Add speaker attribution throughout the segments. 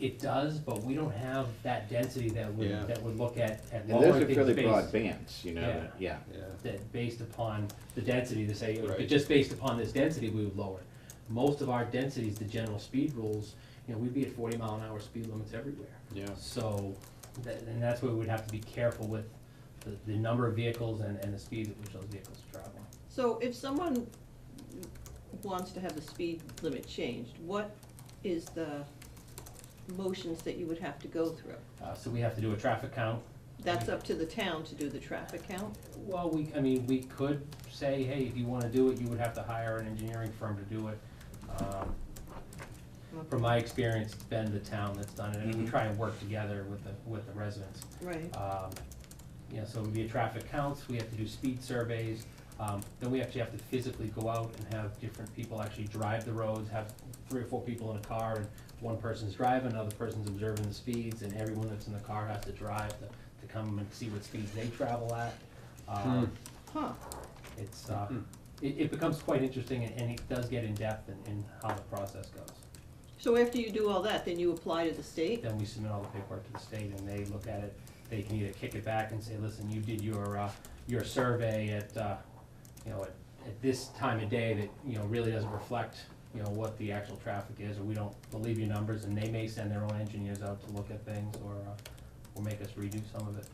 Speaker 1: it does, but we don't have that density that would,
Speaker 2: Yeah.
Speaker 1: that would look at, at
Speaker 3: And those
Speaker 1: lowering
Speaker 3: are fairly
Speaker 1: things based,
Speaker 3: broad bands, you know,
Speaker 1: Yeah.
Speaker 3: that- yeah.
Speaker 2: yeah,
Speaker 1: that based upon the density to say,
Speaker 2: Right.
Speaker 1: but just based upon this density, we would lower. it. Most of our densities, the general speed rules, you know, we'd be at forty mile an hour speed limits everywhere.
Speaker 2: yeah,
Speaker 1: So, that, and that's where we'd have to be careful with the, the number of vehicles and, and the speed at which those vehicles are traveling.
Speaker 4: So if someone wants to have the speed limit changed, what is the motions that you would have to go through?
Speaker 1: Uh, so we have to do a traffic count.
Speaker 4: That's up to the town to do the traffic count?
Speaker 1: Well, we, I mean, we could say, hey, if you wanna do it, you would have to hire an engineering firm to do it. Um, From my experience, it's been the town that's done it, and we
Speaker 2: Mhm.
Speaker 1: try and work together with the, with the residents.
Speaker 4: Right,
Speaker 1: Um, You know, so it would be a traffic counts, we have to do speed surveys, um, then we actually have to physically go out and have different people actually drive the roads, have three or four people in a car, and one person's driving, another person's observing the speeds, and everyone that's in the car has to drive to, to come and see what speeds they travel at. Um,
Speaker 4: huh,
Speaker 1: It's, uh, it, it becomes quite interesting, and- and it does get in-depth in, in how the process goes.
Speaker 4: so after you do all that, then you apply to the state?
Speaker 1: Then we submit all the paperwork to the state and they look at it, they can either kick it back and say, listen, you did your, uh, your survey at, uh, you know, at, at this time of day that, you know, really doesn't reflect, you know, what the actual traffic is, or we don't believe your numbers, and they may send their own engineers out to look at things or, uh, or make us redo some of it.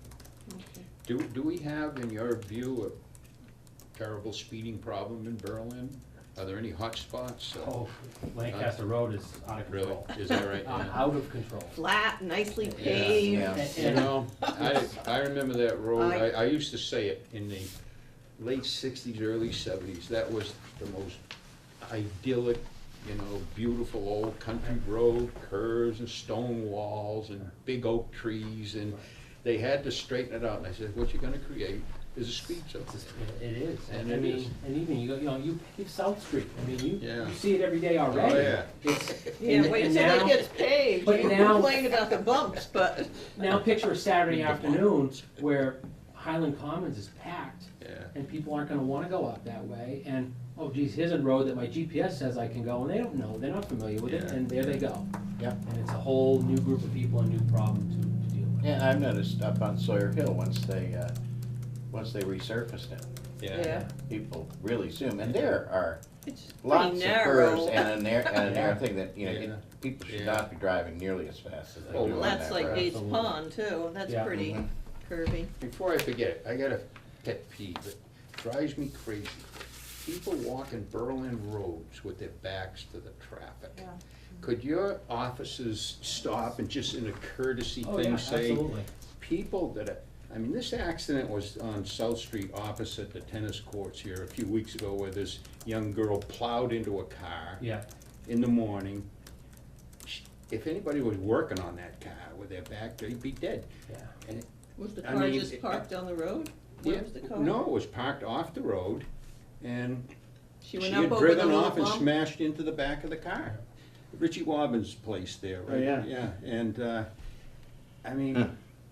Speaker 4: Okay.
Speaker 2: do, do we have, in your view, a terrible speeding problem in Berlin? Are there any hot spots? Uh,
Speaker 1: Oh, Lancaster Road is out of
Speaker 2: Really,
Speaker 1: control.
Speaker 2: is that right?
Speaker 1: Uh,
Speaker 2: Yeah.
Speaker 1: Out of control.
Speaker 4: Flat, nicely
Speaker 2: Yeah,
Speaker 4: paved,
Speaker 3: yeah.
Speaker 2: You know, I, I remember that road, I, I
Speaker 4: I-
Speaker 2: used to say it in the late sixties, early seventies, that was the most idyllic, you know, beautiful old country road, curves and stone walls and big oak trees, and they had to straighten it out, and I said, what you're gonna create is a speed zone.
Speaker 1: It's just- It it is,
Speaker 2: And
Speaker 1: I
Speaker 2: it is.
Speaker 1: mean, and even, you go, you know, you, you South Street, I mean, you,
Speaker 2: Yeah. Oh,
Speaker 1: you see it every day already.
Speaker 2: yeah.
Speaker 1: It's,
Speaker 4: yeah,
Speaker 1: and-
Speaker 4: wait
Speaker 1: and
Speaker 4: until
Speaker 1: now-
Speaker 4: that gets paved,
Speaker 1: but
Speaker 4: you
Speaker 1: now-
Speaker 4: complain about the bumps, but,
Speaker 1: Now picture a Saturday afternoon where Highland Commons is packed
Speaker 2: Yeah,
Speaker 1: and people aren't gonna wanna go out that way and, oh geez, here's a road that my GPS says I can go and they don't know, they're not familiar with it,
Speaker 2: Yeah.
Speaker 1: and there they go.
Speaker 3: Yeah.
Speaker 1: And it's a whole new group of people and new problem to, to deal with.
Speaker 3: And I've noticed up on Sawyer Hill, once they, uh, once they resurfaced it,
Speaker 4: yeah,
Speaker 3: people really zoom, and there are
Speaker 4: it's pretty
Speaker 3: lots of curves
Speaker 4: narrow.
Speaker 3: and a narrow, and a narrow thing that, you know,
Speaker 2: Yeah.
Speaker 3: it- people should
Speaker 2: Yeah.
Speaker 3: not be driving nearly as fast as they do
Speaker 2: Oh,
Speaker 3: on that
Speaker 2: well,
Speaker 3: road.
Speaker 4: That's like Gates
Speaker 1: Absolutely.
Speaker 4: Pond too, that's
Speaker 1: Yeah.
Speaker 4: pretty
Speaker 3: Mhm.
Speaker 4: curvy.
Speaker 2: Before I forget, I got a pet peeve that drives me crazy. People walking Berlin roads with their backs to the traffic.
Speaker 4: Yeah.
Speaker 2: Could your officers stop and just in a courtesy
Speaker 1: Oh, yeah,
Speaker 2: thing say,
Speaker 1: absolutely.
Speaker 2: people that are, I mean, this accident was on South Street opposite the tennis courts here a few weeks ago where this young girl plowed into a car
Speaker 1: Yeah,
Speaker 2: in the morning. Sh- If anybody was working on that car with their back, they'd be dead.
Speaker 1: yeah.
Speaker 2: And it-
Speaker 4: Was the
Speaker 2: I
Speaker 4: car
Speaker 2: mean,
Speaker 4: just
Speaker 2: it-
Speaker 4: parked on the road?
Speaker 2: yeah,
Speaker 4: Where was the car?
Speaker 2: No, it was parked off the road and she
Speaker 4: She went up
Speaker 2: had
Speaker 4: over the
Speaker 2: driven
Speaker 4: little
Speaker 2: off and
Speaker 4: bump?
Speaker 2: smashed into the back of the car. Richie Wobbin's place there,
Speaker 3: Oh,
Speaker 2: right?
Speaker 3: yeah.
Speaker 2: Yeah, and, uh, I mean, y-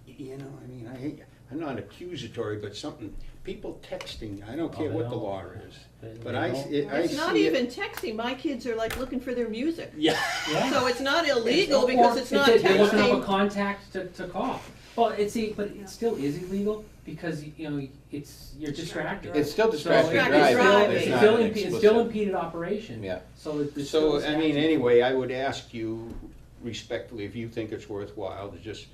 Speaker 2: you know, I mean, I hate, I'm not accusatory, but something, people texting, I don't
Speaker 1: Oh,
Speaker 2: care
Speaker 1: they
Speaker 2: what the
Speaker 1: don't.
Speaker 2: law is.
Speaker 1: They-
Speaker 2: But
Speaker 1: they
Speaker 2: I,
Speaker 1: don't-
Speaker 2: it- I see it.
Speaker 4: It's not even texting, my kids are like looking for their music.
Speaker 2: Yeah.
Speaker 1: Yeah.
Speaker 4: So it's not illegal because
Speaker 1: Or
Speaker 4: it's not
Speaker 1: that They don't have a
Speaker 4: texting.
Speaker 1: contact to, to call. Well, it's, see, but it still is illegal because, you know, it's, you're distracted.
Speaker 3: It's still
Speaker 1: So
Speaker 3: distracted
Speaker 4: Distracted
Speaker 3: driving,
Speaker 4: driving.
Speaker 3: it's
Speaker 1: It's
Speaker 3: not
Speaker 1: still,
Speaker 3: an
Speaker 1: impe- it's still
Speaker 3: explicit-
Speaker 1: impeded operation.
Speaker 3: Yeah.
Speaker 1: So it- it's still.
Speaker 2: So, I mean,
Speaker 1: statute.
Speaker 2: anyway, I would ask you respectfully, if you think it's worthwhile, to just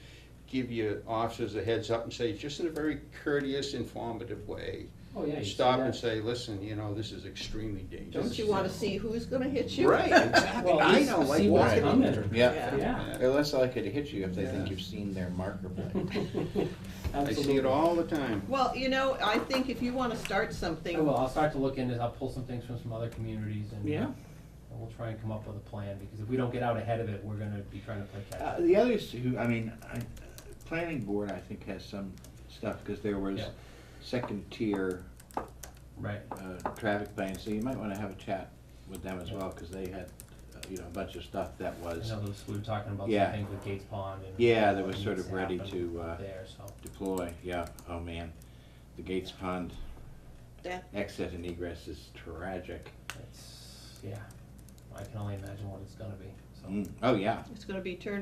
Speaker 2: give your officers a heads up and say, just in a very courteous, informative way,
Speaker 1: Oh, yeah. you see
Speaker 2: stop and
Speaker 1: that.
Speaker 2: say, listen, you know, this is extremely dangerous.
Speaker 4: Don't you wanna see who's gonna hit you?
Speaker 2: Right, exactly.
Speaker 1: Well, at
Speaker 2: I
Speaker 1: least
Speaker 2: know, like
Speaker 1: see what's
Speaker 2: walking-
Speaker 1: coming.
Speaker 3: Yeah,
Speaker 1: Yeah,
Speaker 2: Yeah.
Speaker 3: they're less likely to hit you if they
Speaker 2: Yeah.
Speaker 3: think you've seen their marker plate.
Speaker 2: I see it
Speaker 1: absolutely.
Speaker 2: all the time.
Speaker 4: Well, you know, I think if you wanna start
Speaker 1: I
Speaker 4: something,
Speaker 1: will, I'll start to look into, I'll pull some things from some other communities and. uh,
Speaker 3: Yeah.
Speaker 1: And we'll try and come up with a plan, because if we don't get out ahead of it, we're gonna be trying to play catch
Speaker 5: Uh,
Speaker 1: up.
Speaker 5: The others who, I mean, I, uh, planning board, I think, has some stuff, because there was
Speaker 1: Yeah.
Speaker 5: second tier,
Speaker 1: Right,
Speaker 5: uh, traffic plans, so you might wanna have a chat with them as well, because they had, uh, you know, a bunch of stuff that
Speaker 1: I
Speaker 5: was
Speaker 1: know those, we were talking about some
Speaker 5: Yeah.
Speaker 1: things with Gates Pond and.
Speaker 5: Yeah, that
Speaker 1: what
Speaker 5: was sort
Speaker 1: needs
Speaker 5: of ready
Speaker 1: happen
Speaker 5: to, uh,
Speaker 1: There, so,
Speaker 5: deploy, yeah, oh man. The Gates Pond
Speaker 4: that,
Speaker 5: exit and egress is tragic.
Speaker 1: it's, yeah, I can only imagine what it's gonna be, so.
Speaker 5: Mm, Oh, yeah.
Speaker 4: it's gonna be turned